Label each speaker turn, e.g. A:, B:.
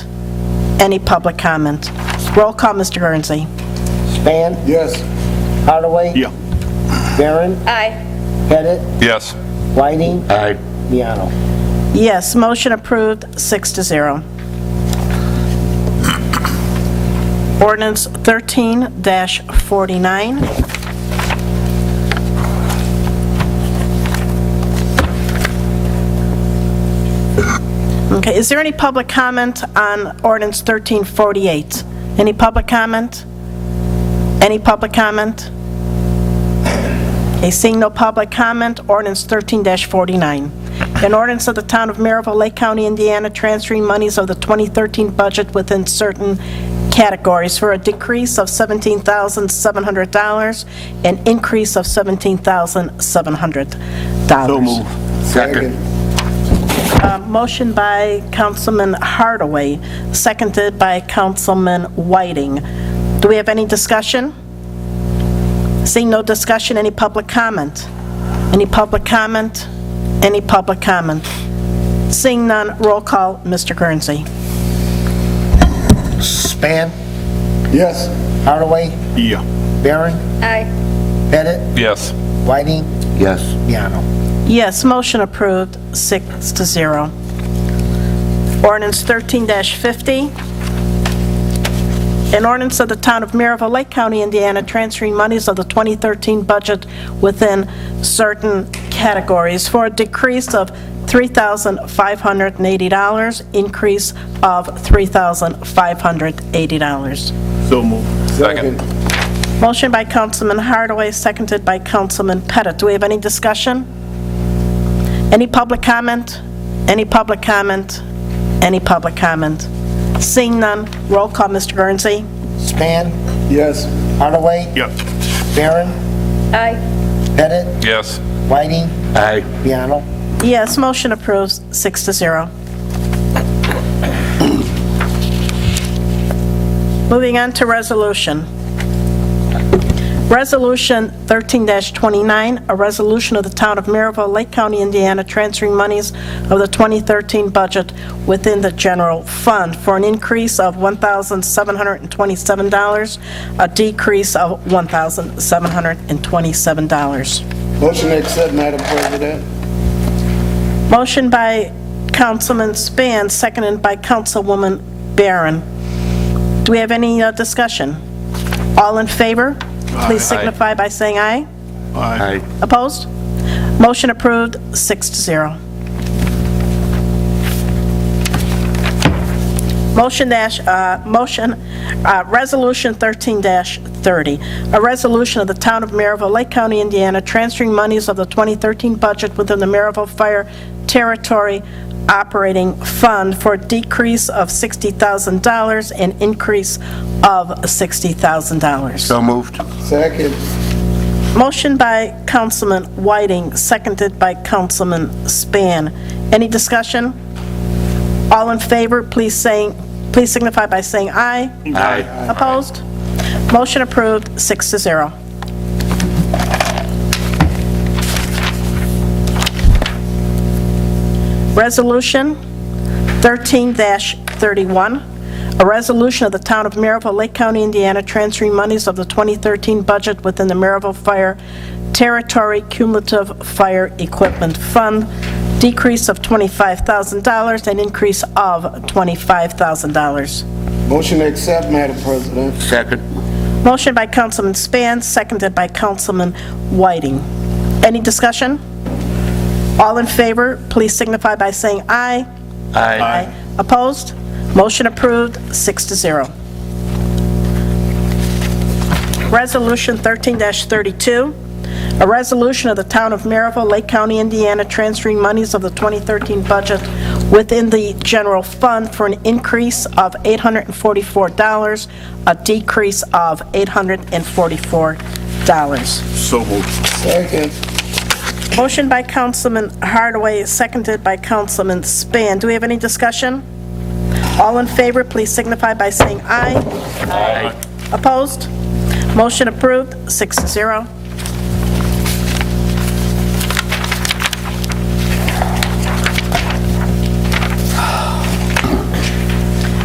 A: Any public comment? Roll call, Mr. Guernsey.
B: Span?
C: Yes.
B: Hardaway?
D: Yeah.
B: Baron?
E: Aye.
B: Pettit?
D: Yes.
B: Whiting?
D: Aye.
B: Miano?
A: Yes, motion approved, six to zero. Ordinance 13-49. Okay, is there any public comment on ordinance 1348? Any public comment? Any public comment? Okay, seeing no public comment, ordinance 13-49. An ordinance of the Town of Maryville, Lake County, Indiana, transferring monies of the 2013 budget within certain categories for a decrease of $17,700 and increase of $17,700.
D: So move.
C: Second.
A: Uh, Motion by Councilman Hardaway, seconded by Councilman Whiting. Do we have any discussion? Seeing no discussion, any public comment? Any public comment? Any public comment? Seeing none, roll call, Mr. Guernsey.
B: Span?
C: Yes.
B: Hardaway?
D: Yeah.
B: Baron?
E: Aye.
B: Pettit?
D: Yes.
B: Whiting?
C: Yes.
B: Miano?
A: Yes, motion approved, six to zero. Ordinance 13-50, an ordinance of the Town of Maryville, Lake County, Indiana, transferring monies of the 2013 budget within certain categories for a decrease of $3,580, increase of $3,580.
D: So move.
C: Second.
A: Motion by Councilman Hardaway, seconded by Councilman Pettit. Do we have any discussion? Any public comment? Any public comment? Any public comment? Seeing none, roll call, Mr. Guernsey.
B: Span?
C: Yes.
B: Hardaway?
D: Yeah.
B: Baron?
E: Aye.
B: Pettit?
D: Yes.
B: Whiting?
D: Aye.
B: Miano?
A: Yes, motion approves, six to zero. Moving on to resolution. Resolution 13-29, a resolution of the Town of Maryville, Lake County, Indiana, transferring monies of the 2013 budget within the general fund for an increase of $1,727, a decrease of $1,727.
C: Motion to accept, Madam President.
A: Motion by Councilman Span, seconded by Councilwoman Barron. Do we have any uh, discussion? All in favor? Please
D: Aye.
A: signify by saying aye.
D: Aye.
A: Opposed? Motion approved, six to zero. Motion dash, uh, motion, uh, Resolution 13-30, a resolution of the Town of Maryville, Lake County, Indiana, transferring monies of the 2013 budget within the Maryville Fire Territory Operating Fund for a decrease of $60,000 and increase of $60,000.
D: moved.
C: Second.
A: Motion by Councilman Whiting, seconded by Councilman Span. Any discussion? All in favor, please saying, please signify by saying aye.
D: Aye.
A: Opposed? Motion approved, six to zero. Resolution 13-31, a resolution of the Town of Maryville, Lake County, Indiana, transferring monies of the 2013 budget within the Maryville Fire Territory Cumulative Fire Equipment Fund, decrease of $25,000 and increase of $25,000.
C: Motion to accept, Madam President.
D: Second.
A: Motion by Councilman Span, seconded by Councilman Whiting. Any discussion? All in favor, please signify by saying aye.
D: Aye.
A: Opposed? Motion approved, six to zero. Resolution 13-32, a resolution of the Town of Maryville, Lake County, Indiana, transferring monies of the 2013 budget within the general fund for an increase of $844, a decrease of $844.
D: So moved.
C: Second.
A: Motion by Councilman Hardaway, seconded by Councilman Span. Do we have any discussion? All in favor, please signify by saying aye. Aye. Opposed? Motion approved, six to zero.